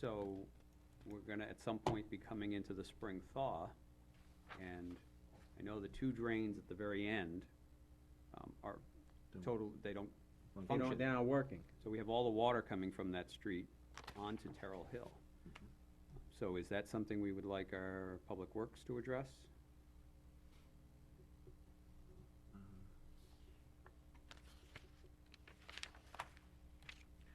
So we're gonna at some point be coming into the spring thaw. And I know the two drains at the very end um, are Don't- total, they don't They function. don't, they're not working. So we have all the water coming from that street onto Terrell Hill. Mm-hmm. So is that something we would like our public works to address?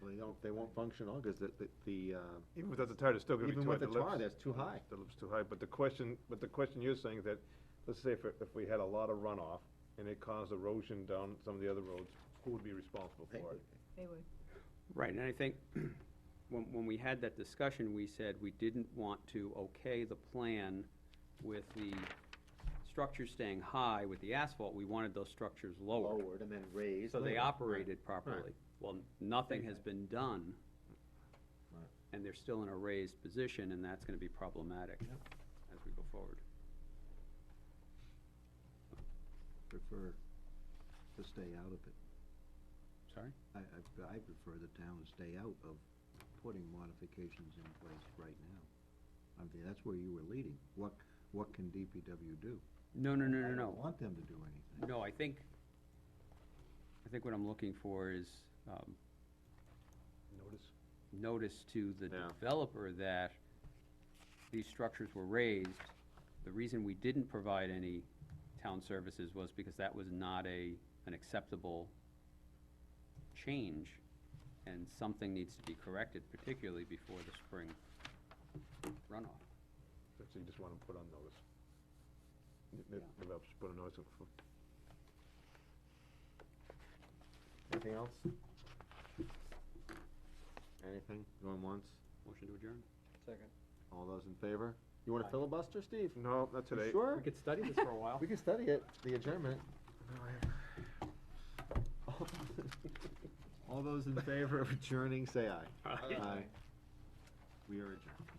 They don't, they won't function all, because the, the- the, uh, Even without the tar, it's still gonna be too even high. with the tar, lips- that's too high. The lip's too high, but the question, but the question you're saying is that, let's say if, if we had a lot of runoff and it caused erosion down some of the other roads, who would be responsible Hey, for it? They would. Right, and I think when, when we had that discussion, we said we didn't want to okay the plan with the structures staying high with the asphalt, we wanted those structures lowered. Lowered and then raised. So they later. operated properly. Well, nothing has been done. Right. And they're still in a raised position, and that's gonna be problematic as we go forward. prefer to stay out of it. Sorry? I, I, I prefer the town to stay out of putting modifications in place right now. I mean, that's where you were leading. What, what can DPW do? No, no, no, I no, don't no. want them to do anything. No, I think, I think what I'm looking for is, um, Notice? notice to the Yeah. developer that these structures were raised. The reason we didn't provide any town services was because that was not a, an acceptable change. And something needs to be corrected, particularly before the spring runoff. That's what you just wanna put on notice. N- n- Yeah. Developers put a notice of- for- Anything else? Anything, going once, Motion to adjourn? Second. all those in favor? You wanna Aye. filibuster, Steve? No, not You today. Sure, could study this for a while. we can study it, the adjournment. All those in favor of adjourning, say aye. Aye. Aye. We are adjourned.